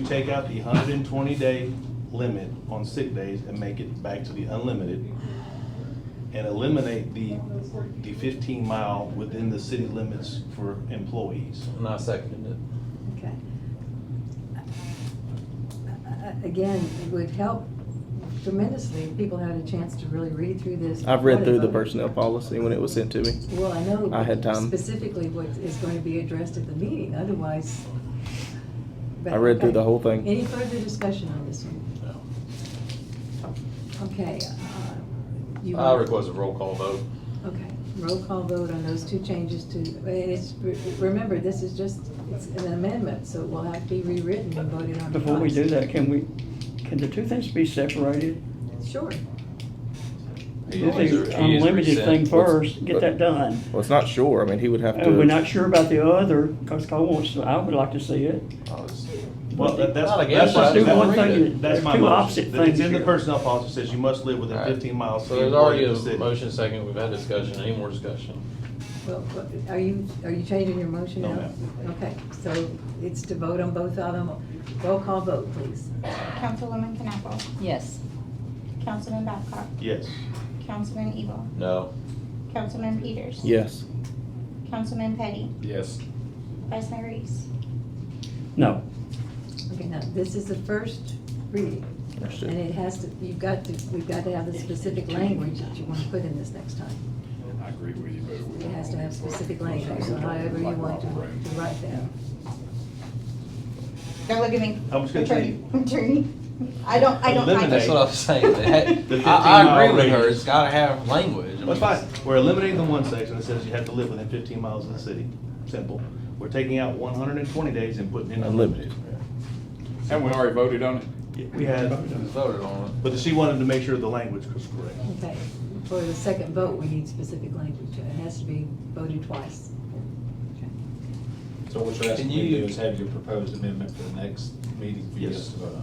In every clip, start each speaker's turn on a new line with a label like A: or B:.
A: You take out the hundred and twenty day limit on sick days and make it back to the unlimited. And eliminate the, the fifteen mile within the city limits for employees.
B: And I seconded it.
C: Okay. Uh, Again, it would help tremendously if people had a chance to really read through this.
D: I've read through
C: before
D: the
C: they
D: personnel
C: vote.
D: policy when it was sent to me.
C: Well, I know.
D: I had time.
C: Specifically what is going to be addressed at the meeting, otherwise. but-
D: I read through the
C: okay.
D: whole thing.
C: Any further discussion on this one? Okay. uh, you
B: I
C: want-
B: request a roll call vote.
C: Okay, roll call vote on those two changes to, and it's, remember, this is just, it's an amendment, so it will have to be rewritten and voted on.
E: Before we do
C: twice.
E: that, can we, can the two things be separated?
C: Sure.
B: He
E: Do
B: is- he is
E: the unlimited
B: resent-
E: thing
D: What's-
E: first, get that done.
D: Well, it's not sure. I mean, he would have to.
E: Uh, We're not sure about the other, because Cole wants, to- I would like to see it.
B: Oh, it's-
A: Well, that- that's.
B: Not
A: that's
B: against
A: my-
B: us. Do one
A: that's-
E: thing,
A: That's my
E: two
A: motion.
E: opposite
A: It's in
E: things
A: the
E: here.
A: personnel policy, says you must live within
B: All right.
A: fifteen miles. of
B: So
A: the
B: there's
A: employee
B: already
A: of the
B: a
A: city.
B: motion second, we've had discussion, any more discussion?
C: Well, what- are you, are you changing your motion
A: No,
C: now?
A: ma'am.
C: Okay, so it's to vote on both of them. Roll call vote, please.
F: Councilwoman Knappel,
G: Yes.
F: Councilman Babcock,
A: Yes.
F: Councilman Evil,
B: No.
F: Councilman Peters,
D: Yes.
F: Councilman Petty,
B: Yes.
F: Vice Mayor Reese.
E: No.
C: Okay, now, this is the first reading, and
D: Understood.
C: it has to, you've got to, we've got to have the specific language that you want to put in this next time.
H: I agree with you, but we
C: It has to have specific language, so however you want to to write that.
F: Don't look at me.
A: I was gonna
F: Attorney-
A: tell
F: Attorney, I don't, I don't like
A: Eliminate.
B: That's what I was saying. They had-
A: The
B: I,
A: 15
B: I
A: mile
B: agree with her,
A: radius.
B: it's gotta have language. I mean,
A: That's fine. We're eliminating the one section that says you have to live within fifteen miles of the city. Simple. We're taking out one hundred and twenty days and putting in unlimited.
D: Unlimited.
H: And we already voted on it?
A: We had,
B: We Voted on
A: but she wanted to make sure the language was correct.
C: Okay, for the second vote, we need specific language. It has to be voted twice.
I: So what you're asking
B: Can
I: me to
B: you-
I: do is have your proposed amendment for the next meeting for you
A: Yes.
I: guys to vote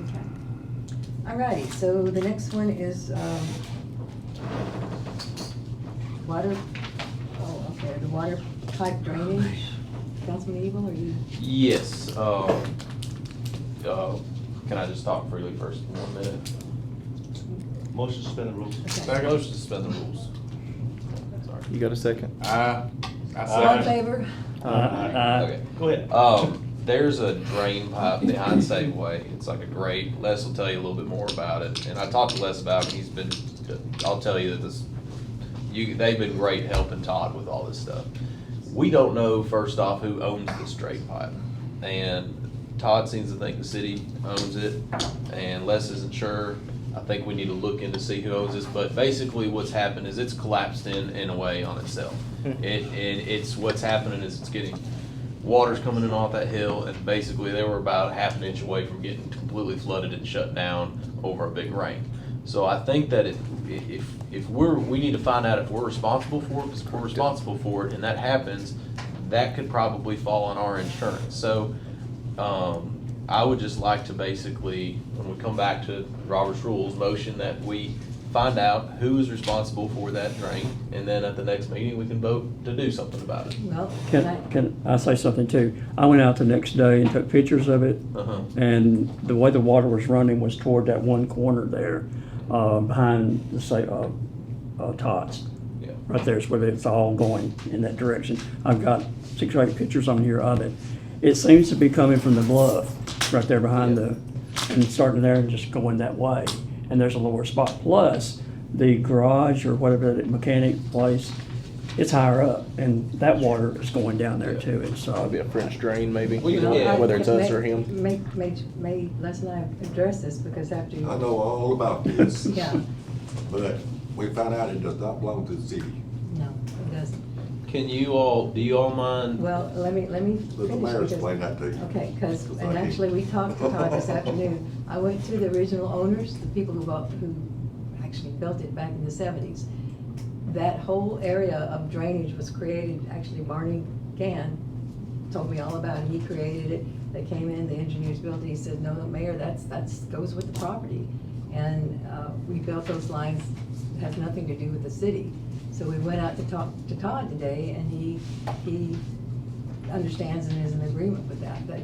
I: on.
C: Okay. All righty, so the next one is, um, water, oh, okay, the water pipe drainage. Councilman Evil, are you,
B: it. Yes, uh, uh, can I just talk freely first for one minute?
A: Motion to suspend the rules.
C: okay.
B: Motion to suspend the rules. Sorry.
D: You got a second?
H: I, I
C: All in
H: second.
C: favor?
E: Uh, uh,
B: Oh, Okay.
A: Go ahead.
B: Um, there's a drain pipe behind Safeway. It's like a grate. Les will tell you a little bit more about it. And I talked to Les about it. and He's been, I'll tell you that this, you, they've been great helping Todd with all this stuff. We don't know, first off, who owns this drain pipe. And Todd seems to think the city owns it and Les isn't sure. I think we need to look in to see who owns this, but basically what's happened is it's collapsed in, in a way on itself. It, and it's, what's happening is it's getting water's coming in off that hill, and basically they were about half an inch away from getting completely flooded and shut down over a big rain. So I think that if, if, if we're, we need to find out if we're responsible for it, because if we're responsible for it, and that happens, that could probably fall on our insurance. So, um, I would just like to basically, when we come back to Robert's Rules, motion that we find out who is responsible for that drain, and then at the next meeting, we can vote to do something about it.
C: Well, can
E: Can,
C: I,
E: can I say something too? I went out the next day and took pictures of it.
B: Uh-huh.
E: And the way the water was running was toward that one corner there, uh, behind the, say, uh, uh, Tots.
B: Yeah.
E: Right there is where it's all going in that direction. I've got six or eight pictures on here of it. It seems to be coming from the bluff, right there behind the, and starting there and just going that way. And there's a lower spot. Plus, the garage or whatever that mechanic place, it's higher up and that water is going down there too. And so.
D: Probably a French drain, maybe.
B: We can-
C: Well,
B: yeah,
C: I-
D: Whether it's us
C: may-
D: or him.
C: May, may, may Les and I address this, because after you.
J: I know all about this,
C: Yeah,
J: but we found out it does not belong to the city.
C: no, it doesn't.
B: Can you all, do you all mind?
C: Well, let me, let me
J: Let the
C: finish
J: mayor
C: because-
J: explain that to you.
C: Okay, because,
J: Because I
C: and
J: can't.
C: actually, we talked to Todd this afternoon. I went to the original owners, the people who bought, who actually built it back in the seventies. That whole area of drainage was created, actually Barney Gann told me all about it. He created it. They came in, the engineers built it. He said, no, no, Mayor, that's, that's, goes with the property. And, uh, we built those lines, It has nothing to do with the city. So we went out to talk to Todd today and he, he understands and is in agreement with that, but